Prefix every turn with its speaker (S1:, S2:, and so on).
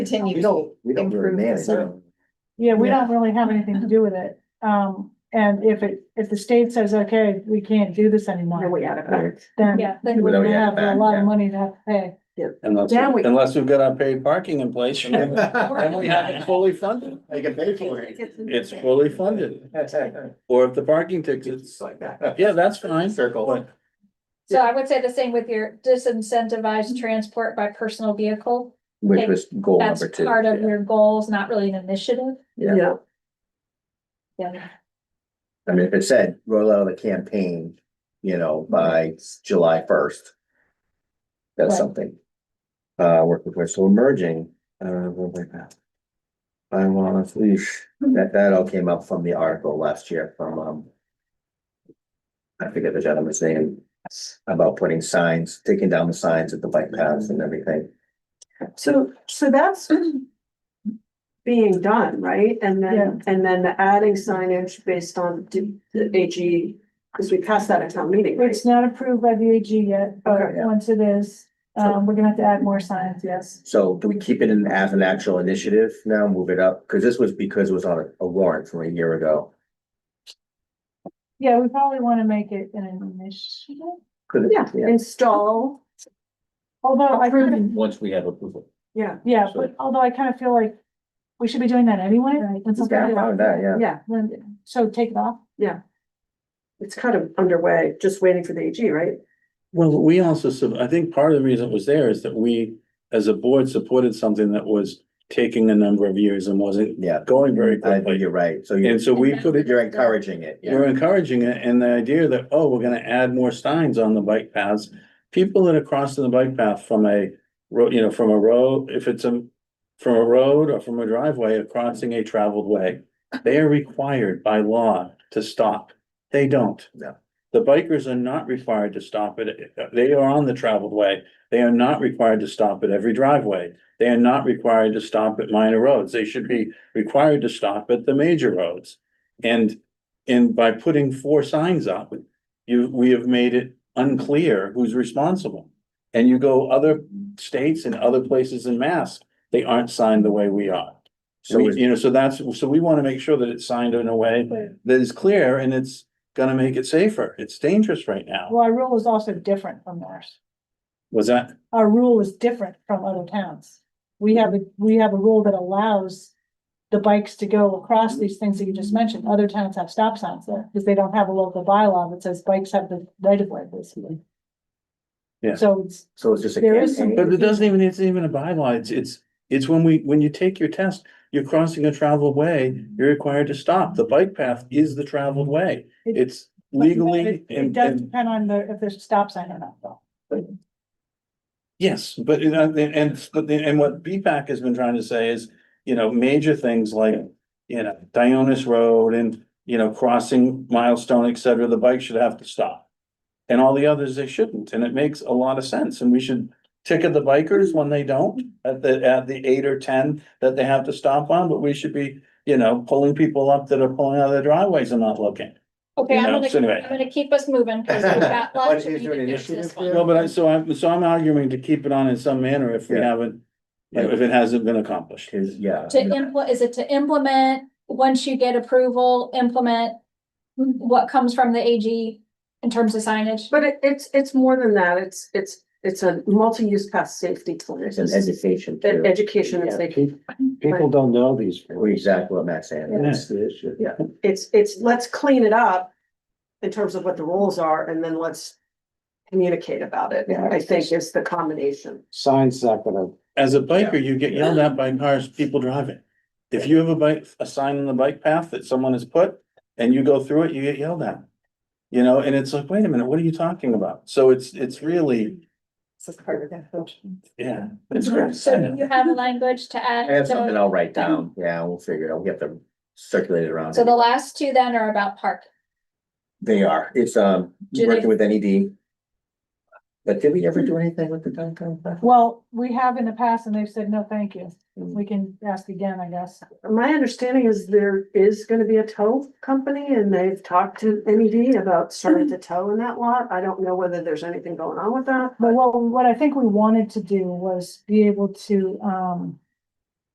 S1: continue
S2: We
S1: to
S2: don't, we don't
S1: improve
S2: really
S1: the
S2: manage.
S1: service.
S2: it.
S3: Yeah, we
S4: Yeah.
S3: don't really have anything to do with it. Um, and if it, if the state says, okay, we can't do this anymore.
S4: Then we add it back.
S3: Then
S1: Yeah.
S3: we're
S2: Then we
S3: gonna
S2: add
S3: have
S2: it
S3: a
S2: back,
S3: lot
S2: yeah.
S3: of money to have to pay.
S5: Unless,
S4: Now we-
S5: unless we've got our paid parking in place, and then then we have it fully funded.
S2: They can pay for it.
S5: It's fully funded,
S2: It's
S5: or if the parking tickets,
S2: like that.
S5: yeah, that's fine.
S2: Circle.
S5: But
S1: So I would say the same with your disincentivized transport by personal vehicle.
S2: Which was Mm-hmm. goal
S1: That's
S2: number two.
S1: part of
S2: yeah.
S1: your goals, not really an initiative.
S2: Yeah.
S4: Yeah,
S1: Yeah.
S2: I mean, if it said roll out the campaign, you know, by July first. That's
S1: Right.
S2: something. Uh, work with, so merging, uh, what was that? I want to leash, that, that all came up from the article last year from, um. I forget the gentleman's name, about putting signs, taking down the signs at the bike paths and everything.
S4: so, so that's being done, right? And
S3: Yeah.
S4: then, and then the adding signage based on d- the AG, because we passed that at town meeting, right?
S3: It's not approved by the AG yet, but
S4: Okay.
S2: Yeah.
S3: once it is, um, we're gonna have to add more signs, yes.
S2: So do we keep it in as an actual initiative now, move it up? Cause this was because it was on a- a warrant from a year ago.
S3: Yeah, we probably wanna make it an initiative,
S2: Could it?
S4: Yeah, install,
S3: although Oh, I kind of,
S6: Once we have approval.
S4: yeah,
S3: yeah, but although I kind of feel like we should be doing that anyway. when something
S2: Yeah, I'm
S3: like
S2: fine with that, yeah.
S4: yeah,
S3: Then- So take it off.
S4: it's kind of underway, just waiting for the AG, right?
S5: Well, we also, sub- I think part of the reason it was there is that we, as a board, supported something that was taking a number of years and wasn't
S2: Yeah,
S5: going very
S2: I think
S5: quickly.
S2: you're right. So you're,
S5: And so we put it,
S2: you're encouraging it.
S5: we're
S2: Yeah,
S5: encouraging it, and the idea that, oh, we're gonna add more signs on the bike paths. People that are crossing the bike path from a road, you know, from a road, if it's a, from a road or from a driveway, or crossing a traveled way. They are required by law to stop. They don't.
S2: No.
S5: The bikers are not required to stop at They are on the traveled way. They are not required to stop at every driveway. They are not required to stop at minor roads. They should be required to stop at the major roads. And, and by putting four signs up, you, we have made it unclear who's responsible. And you go other states and other places in Mass, they aren't signed the way we are.
S2: So
S5: We-
S2: is-
S5: you know, so that's, so we want to make sure that it's signed in a way that is clear and it's gonna make it safer. It's dangerous right now.
S3: Well, our rule is also different from theirs.
S5: Was that,
S3: our rule is different from other towns. We have a, we have a rule that allows the bikes to go across these things that you just mentioned. Other towns have stop signs there because they don't have a local bylaw that says bikes have the right of way basically.
S5: Yeah.
S3: So it's,
S2: so it's just a
S3: There is some-
S2: campaign.
S5: but it doesn't even, it's even a bylaw. It's, it's, it's when we, when you take your test, you're crossing a traveled way, you're required to stop. The bike path is the traveled way.
S3: It-
S5: It's
S3: but
S5: legally
S3: It it
S5: and,
S3: does
S5: and
S3: depend on the, if there's a stop sign or not though.
S5: Yes, but you know, and and but the- and what BPAC has been trying to say is, you know, major things like, you know, Dionis Road and, you know, crossing milestone, et cetera, the bike should have to stop. And all the others, they shouldn't, and it makes a lot of sense, and we should ticket the bikers when they don't, at the, at the eight or ten that they have to stop on, but we should be, you know, pulling people up that are pulling out of their driveways and not looking.
S1: Okay, I'm
S5: Yeah,
S1: gonna,
S5: so anyway.
S1: I'm gonna keep us moving. 'cause we've got
S2: What
S1: lots
S2: is
S1: of
S2: there an
S1: meetings this
S2: initiative
S1: one.
S2: there?
S5: No, but I, so I'm, so I'm arguing to keep it on in some manner if we
S2: Yeah.
S5: haven't, you know, if it hasn't been accomplished.
S2: 'Cause, yeah,
S1: To implement, is it to implement, once you get approval, implement what comes from the AG in terms of signage?
S4: But it, it's, it's more than that, it's, it's, it's a multi-use path safety plan.
S2: it's an education
S4: An
S2: too.
S4: education and
S6: Yeah,
S4: safety.
S6: pe- People don't know these.
S2: We're Exactly what Matt's saying.
S5: That's
S6: the issue.
S4: Yeah, it's, it's, let's clean it up in terms of what the rules are and then let's communicate about it,
S6: Yeah.
S4: I think is the combination.
S6: Signs not gonna,
S5: As a biker, you get yelled at by cars, people driving. If you have a bike, a sign on the bike path that someone has put and you go through it, you get yelled at. You know, and it's like, wait a minute, what are you talking about? So it's, it's really,
S4: This is part of that function.
S5: yeah. it's
S1: So do
S5: crazy.
S1: you have language to
S2: I
S1: add?
S2: have
S1: So-
S2: something I'll write down. Yeah, we'll figure it out. We have to circulate it around.
S1: So the last two then are about park.
S2: They are. It's, um,
S1: Do they-
S2: working with NED. But did we ever do anything with the downtown? plan?
S3: Well, we have in the past and they've said, no, thank you.
S4: Mm.
S3: We can ask again, I guess.
S4: My understanding is there is gonna be a tow company and they've talked to MED about starting to tow in that lot. I don't know whether there's anything going on with that.
S3: But what, what I think we wanted to do was be able to, um,